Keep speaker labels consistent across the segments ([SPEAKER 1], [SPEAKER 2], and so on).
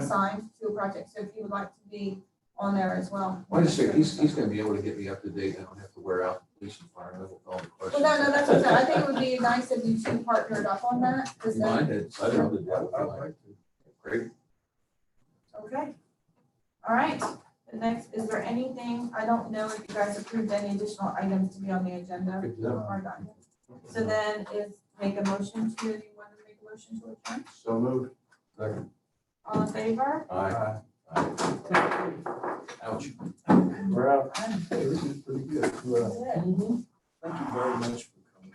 [SPEAKER 1] assigned to a project, so if you would like to be on there as well.
[SPEAKER 2] Well, I just think he's, he's gonna be able to get me up to date. I don't have to wear out police and fire and all the
[SPEAKER 1] Well,
[SPEAKER 2] questions.
[SPEAKER 1] no, no, that's what I'm saying, I think it would be nice if you two partnered up on that,
[SPEAKER 2] You
[SPEAKER 1] because then,
[SPEAKER 2] mind? It's-
[SPEAKER 3] I'd love to do that.
[SPEAKER 2] I'd like to. Great.
[SPEAKER 1] okay. All right, the next, is there anything, I don't know if you guys approved any additional items to be on the agenda
[SPEAKER 2] Good to know.
[SPEAKER 1] or not. So then is make a motion to, you want to make a motion to adjourn?
[SPEAKER 3] So moved.
[SPEAKER 1] All in favor?
[SPEAKER 2] Aye.
[SPEAKER 3] Aye.
[SPEAKER 2] Ouch.
[SPEAKER 3] We're out. This is pretty good. Well,
[SPEAKER 1] Good.
[SPEAKER 3] Thank you very much for coming.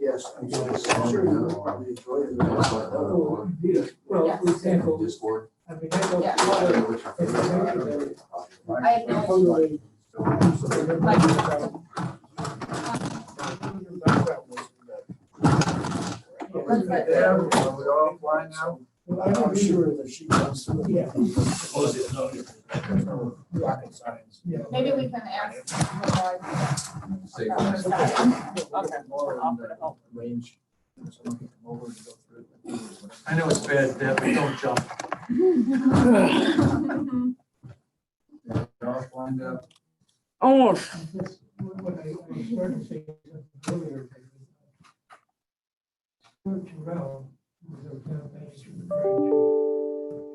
[SPEAKER 3] Yes. I'm sure you'll probably enjoy it.
[SPEAKER 2] Oh,
[SPEAKER 4] Well, for example,
[SPEAKER 2] Discord.
[SPEAKER 4] I mean, I know.
[SPEAKER 1] Yeah.
[SPEAKER 2] I
[SPEAKER 4] why-
[SPEAKER 2] don't know which one.
[SPEAKER 1] I acknowledge,
[SPEAKER 4] Totally. So they're not about-
[SPEAKER 1] Let's get
[SPEAKER 3] Yeah, we're offline now.
[SPEAKER 4] Well, I don't either.
[SPEAKER 3] sure that she comes through.
[SPEAKER 4] Yeah.
[SPEAKER 3] Close it. no, there's no rocket science.
[SPEAKER 4] Yeah.
[SPEAKER 1] maybe we can ask.
[SPEAKER 2] Save
[SPEAKER 1] Okay.
[SPEAKER 2] us.
[SPEAKER 3] Range. Someone can come over and go through.
[SPEAKER 5] I know it's bad, Deb, but don't jump.
[SPEAKER 3] We're offline now.
[SPEAKER 6] Almost.
[SPEAKER 4] That's What I I started saying earlier. George Terrell was our town manager prior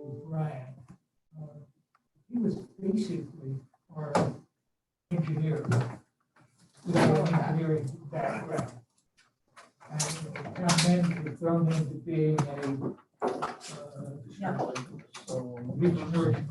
[SPEAKER 4] to Brian. Uh, He was basically our engineer. With an engineering background. And the town manager thrown into being a uh,
[SPEAKER 1] Yeah.
[SPEAKER 4] regional